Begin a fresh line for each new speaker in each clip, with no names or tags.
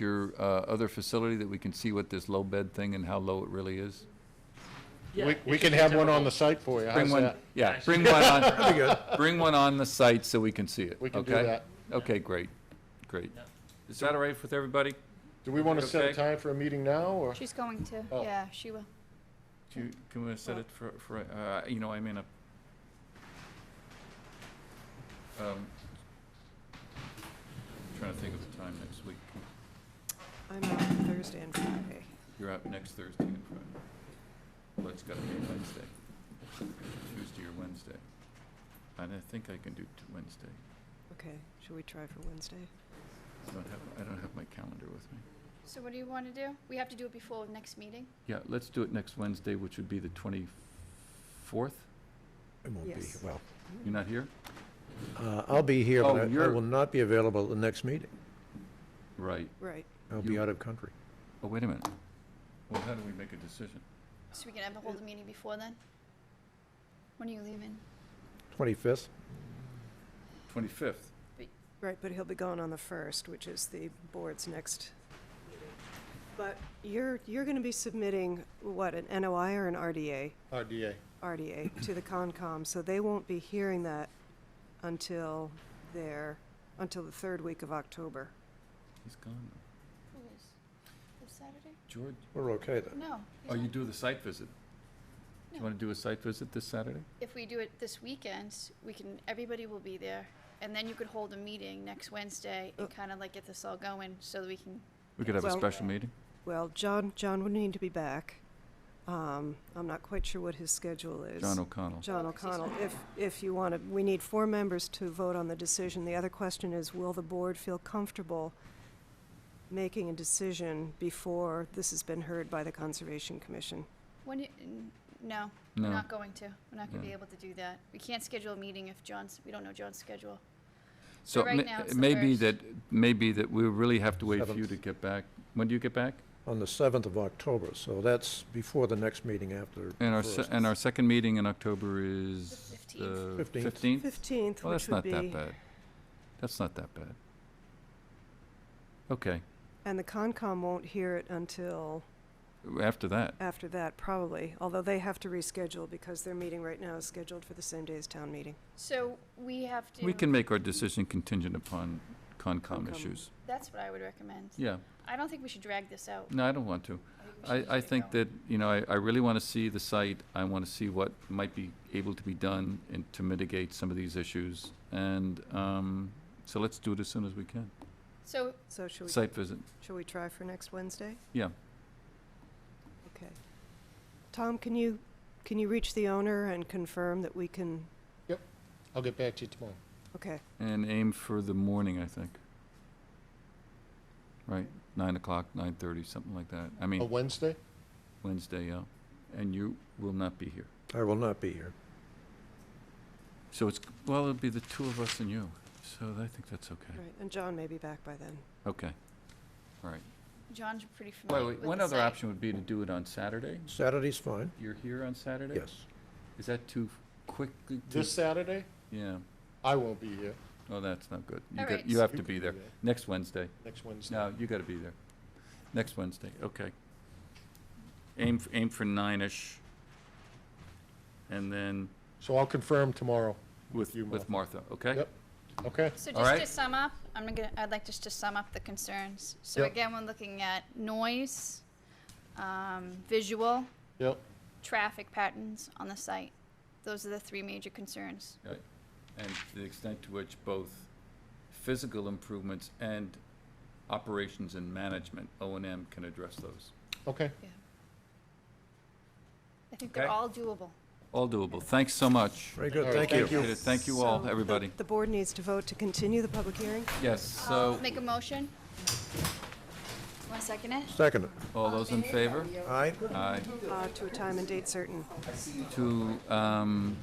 your uh, other facility that we can see what this low bed thing and how low it really is?
Yeah,
We,
it
we
should
can
be
have one on
typical.
the site for you.
Bring
How's
one,
that?
yeah,
Nice.
bring one on, bring one on the site so we can see it,
We can do
okay?
that.
Okay, great, great.
Yeah.
Is that all right with everybody?
Do we want to set
Okay.
a time for a meeting now or?
She's going to,
Oh.
yeah, she will.
Do you, can we set it for, for, uh, you know, I mean, uh, um, trying to think of the time next week.
I'm out Thursday and Friday.
You're out next Thursday and Friday. Well, it's gotta be Wednesday, Tuesday or Wednesday. And I think I can do t- Wednesday.
Okay, should we try for Wednesday?
I don't have, I don't have my calendar with me.
So what do you want to do? We have to do it before the next meeting?
Yeah, let's do it next Wednesday, which would be the twenty-fourth.
I won't be,
Yes.
well,
You're not here?
uh, I'll be here,
Oh,
but I- I
you're-
will not be available at the next meeting.
Right.
Right.
I'll be
You-
out of country.
Oh, wait a minute. Well, how do we make a decision?
So we can have the whole meeting before then? When are you leaving?
25th,
Twenty-fifth.
Right, but he'll be gone on the first, which is the board's next. But you're, you're gonna be submitting, what, an NOI or an RDA?
RDA.
RDA to the Concom, so they won't be hearing that until their, until the third week of October.
He's gone.
Who is? This Saturday?
George,
we're okay then.
No. he's
oh, you
not.
do the site visit? You
No.
wanna do a site visit this Saturday?
If we do it this weekend, we can, everybody will be there. And then you could hold a meeting next Wednesday and
Uh.
kind of like get this all going so that we can,
We could have a
Well-
special meeting?
Well, John, John would need to be back. Um, I'm not quite sure what his schedule is.
John O'Connell.
John
Oh, 'cause he's
O'Connell,
not
if, if you want to, we need four members to vote on the decision. The other question is, will the board feel comfortable making a decision before this has been heard by the Conservation Commission?
when, you- n- no,
No.
we're not going to. We're not going to be
Yeah.
able to do that. We can't schedule a meeting if John's, we don't know John's schedule.
So
right
may-
now it's
it
the
may be
first.
that, maybe that we really have to wait for you
Seventh.
to get back. When do you get back?
On the 7th of October, so that's before the next meeting after.
And our,
first.
se- and our second meeting in October is
The 15th.
the
15th.
fifteenth?
Fifteenth,
Well,
which
that's
would
not
be.
that bad. That's not that bad. Okay,
And the Concom won't hear it until
after that,
after that, probably, although they have to reschedule because their meeting right now is scheduled for the same day as town meeting.
So we have to.
we can make our decision contingent upon
Concom.
Concom issues.
That's what I would recommend.
Yeah,
I don't think we should drag this out.
no, I don't want to.
we should
I, I
just get
think
going.
that, you know, I, I really want to see the site. I want to see what might be able to be done and to mitigate some of these issues. And, um, so let's do it as soon as we can.
So,
So should we,
Site visit,
should we try for next Wednesday?
yeah.
Okay. Tom, can you, can you reach the owner and confirm that we can,
I'll get back to you tomorrow.
okay,
And aim for the morning, I think. Right, nine o'clock, nine thirty, something like that. I
A
mean,
Wednesday?
Wednesday, yeah. And you will not be here.
I will not be here.
So it's, well, it'll be the two of us and you. So I think that's okay.
right, and John may be back by then.
Okay, all right.
John's pretty familiar
Well,
with
wait,
the
one other
site.
option would be to do it on Saturday.
Saturday's fine,
You're here on Saturday?
yes.
Is that too quickly? too-
This Saturday?
Yeah,
I won't be here.
oh, that's not good. You
All
got,
right.
you have
You
to
can
be
do
there.
that.
Next Wednesday.
Next Wednesday.
No, you gotta be there. Next Wednesday, okay. Aim, f- aim for nine-ish. And then
So I'll confirm tomorrow.
with,
you,
with Martha, okay?
Yep. Okay?
So
All
just to
right.
sum up, I'm gonna, I'd like just to sum up the concerns. So
Yep.
again, we're looking at noise, um, visual,
Yep.
traffic patterns on the site. Those are the three major concerns.
Right. And to the extent to which both physical improvements and operations and management, O and M can address those.
Okay.
I think they're
Okay.
all doable.
All doable, thanks so much.
Very
All
good,
right,
thank you.
thank you.
Appreciate it. Thank you all,
So the-
everybody.
The board needs to vote to continue the public hearing?
Yes,
I'll
so,
uh, Make a motion. Want to second it?
Second,
all those in favor?
aye?
Aye.
Uh, to a time and date certain.
To, um,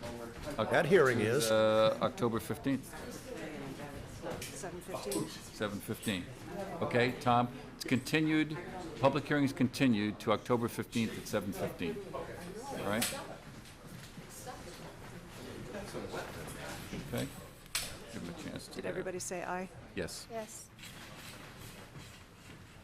That hearing is.
uh, October fifteenth.
Seven fifteen.
Seven fifteen. Okay, Tom, it's continued, public hearing is continued to October fifteenth at seven fifteen. All right? Okay? Give him a chance to.
Did everybody say aye?
Yes.
Yes.